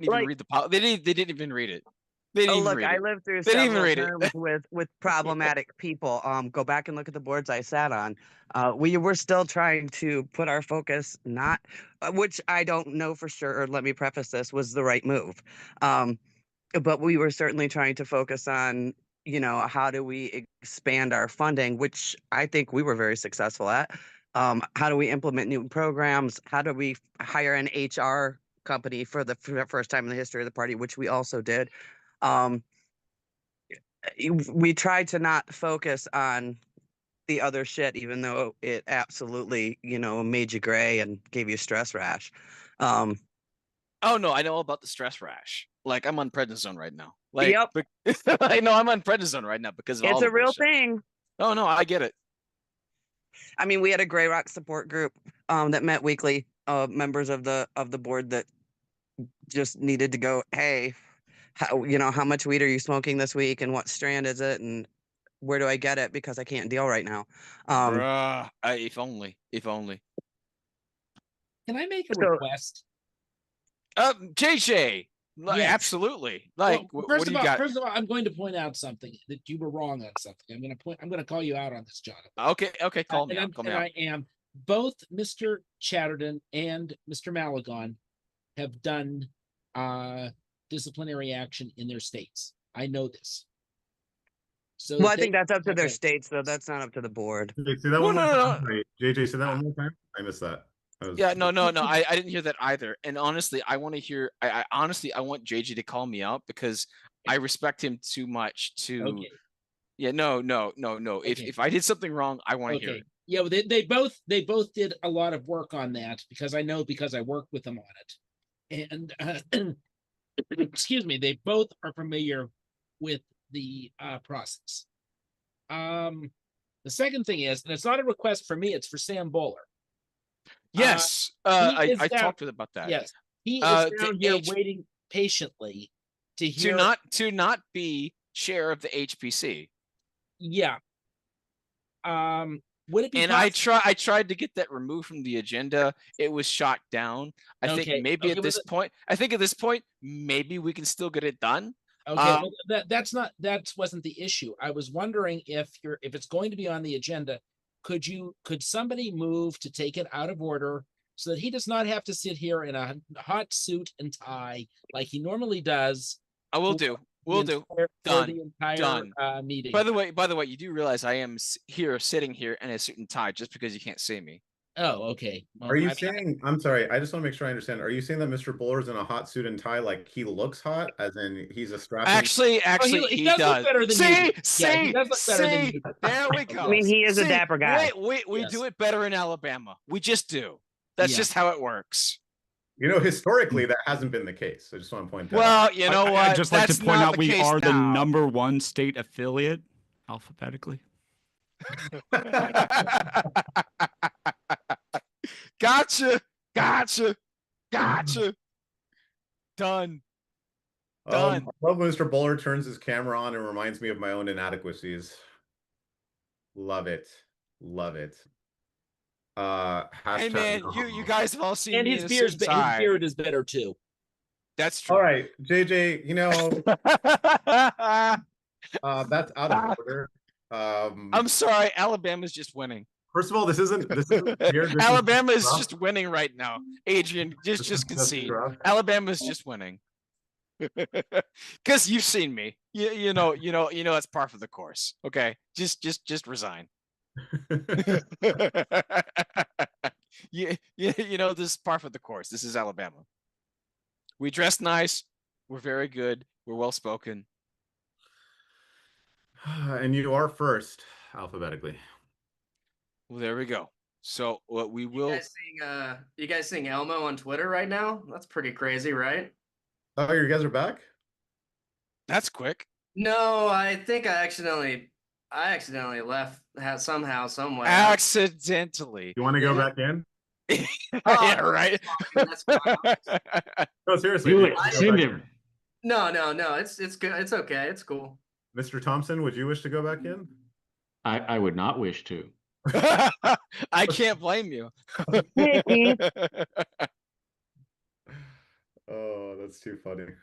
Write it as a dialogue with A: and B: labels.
A: didn't even
B: Like-
A: read the pol- they didn't they didn't even read it. They didn't
B: Oh,
A: even
B: look,
A: read
B: I
A: it.
B: lived through
A: They didn't even
B: several
A: read it.
B: terms with with problematic people. Um, go back and look at the boards I sat on. Uh, we were still trying to put our focus, not uh, which I don't know for sure. Or let me preface this was the right move, um, but we were certainly trying to focus on you know how do we expand our funding, which I think we were very successful at. Um, how do we implement new programs? How do we f- hire an HR company for the f- first time in the history of the party, which we also did. Um, y- we tried to not focus on the other shit, even though it absolutely, you know, made you gray and gave you stress rash. Um,
A: Oh no, I know all about the stress rash. Like I'm on prednisone right now. Like
B: Yep.
A: be- I know I'm on prednisone right now because of all
B: it's a
A: of this
B: real
A: shit.
B: thing.
A: Oh no, I get it.
B: I mean, we had a Gray Rock support group um, that met weekly. Uh, members of the of the board that just needed to go, hey, how, you know, how much weed are you smoking this week, and what strand is it, and where do I get it because I can't deal right now. Um,
A: Bruh. I, if only, if only.
C: Can I make a
B: So-
C: request?
A: Uh, JJ, like,
C: Yes.
A: absolutely. Like, wh-
C: Well,
A: what
C: first
A: do
C: of
A: you
C: all,
A: got?
C: first of all, I'm going to point out something that you were wrong on something. I'm going to point. I'm going to call you out on this, Jonathan.
A: Okay, okay,
C: Uh,
A: call me
C: and I'm-
A: out. Call me
C: and
A: out.
C: I am. Both Mr. Chatterton and Mr. Malagon have done uh disciplinary action in their states. I know this. So
B: Well, I
C: they-
B: think that's up to their
C: okay.
B: states, though. That's not up to the board.
D: JJ, say that
A: No,
D: one
A: no,
D: more
A: no,
D: time. Wait, JJ, say that one more time. I missed that. I was-
A: Yeah, no, no, no. I, I didn't hear that either. And honestly, I want to hear. I, I honestly, I want JJ to call me out because I respect him too much to.
C: Okay.
A: Yeah, no, no, no, no. If
C: Okay.
A: if I did something wrong, I want to hear
C: Okay.
A: it.
C: Yeah, well, they, they both they both did a lot of work on that because I know because I work with them on it. And uh, excuse me, they both are familiar with the uh, process. Um, the second thing is, and it's not a request for me; it's for Sam Bowler.
A: Yes, uh,
C: he
A: I,
C: is
A: I
C: down-
A: talked with about that.
C: Yes, he is
A: Uh, the
C: down here
A: H-
C: waiting patiently to
A: To
C: hear.
A: not to not be chair of the HPC,
C: yeah. Um, would it be?
A: and I
C: possi-
A: try I tried to get that removed from the agenda. It was shot down. I
C: Okay,
A: think maybe
C: okay,
A: at
C: well,
A: this
C: the-
A: point, I think at this point, maybe we can still get it done.
C: Okay,
A: Um,
C: well, that, that's not, that wasn't the issue. I was wondering if you're, if it's going to be on the agenda, could you, could somebody move to take it out of order so that he does not have to sit here in a hot suit and tie like he normally does?
A: I will
C: Well,
A: do.
C: the
A: We'll do.
C: entire- for
A: Done.
C: the entire,
A: Done.
C: Uh, meeting.
A: By the way, by the way, you do realize I am s- here, sitting here in a suit and tie, just because you can't see me.
C: Oh, okay. Well,
D: Are you
C: I-
D: saying, I'm sorry, I just want to make sure I understand. Are you saying that Mr. Buller's in a hot suit and tie, like he looks hot, as in he's a strapping?
A: Actually,
C: Oh, he-
A: actually,
C: he
A: he,
C: does look
A: does.
C: better than you
A: see,
C: do.
A: see,
C: Yeah, he does look better than
A: see.
C: you do.
A: There we go.
B: I mean, he is a
A: See,
B: dapper guy.
A: We we, we do
C: Yes.
A: it better in Alabama. We just do. That's
C: Yeah.
A: just how it works.
D: You know, historically, that hasn't been the case. I just want to point that out.
A: Well, you know
E: I,
A: what?
E: I'd just like
A: That's
E: to point
A: not
E: out
A: the
E: we
A: case
E: are the
A: now.
E: number one state affiliate alphabetically.
A: gotcha, gotcha, gotcha. Done. Done.
D: Um, I love when Mr. Buller turns his camera on and reminds me of my own inadequacies. Love it. Love it. Uh,
A: Hey
D: hashtag
A: man, you you guys have all seen
C: And
A: me
C: his
A: in a
C: beard's,
A: suit
C: be-
A: and
C: his
A: tie.
C: beard is better too.
A: That's true.
D: All right, JJ, you know, uh, that's out of order. Um,
A: I'm sorry, Alabama's just winning.
D: first of all, this isn't this isn't weird, this is
A: Alabama is
D: rough.
A: just winning right now. Adrian, just
D: this
A: just
D: is
A: concede.
D: rough.
A: Alabama's just winning. Cause you've seen me. You you know, you know, you know that's par for the course. Okay. Just just just resign. you, you, you know, this is par for the course. This is Alabama. We dress nice. We're very good. We're well spoken.
D: and you are first alphabetically.
A: Well, there we go. So what we
F: You
A: will
F: guys seeing uh you guys seeing Elmo on Twitter right now? That's pretty crazy, right?
D: Oh, you guys are back.
A: that's quick.
F: No, I think I accidentally I accidentally left ha- somehow, somewhere.
A: Accidentally.
D: You want to go
F: Yeah.
D: back in?
A: yeah, right.
F: That's fine.
D: No, seriously.
E: Do
D: you
E: it.
D: wanna go
E: Send
D: back
E: him.
D: in?
F: No, no, no. It's it's good. It's okay. It's cool.
D: Mr. Thompson, would you wish to go back in?
G: I, I would not wish to.
A: I can't blame you.
B: Hey, Keith.
D: Oh, that's too funny.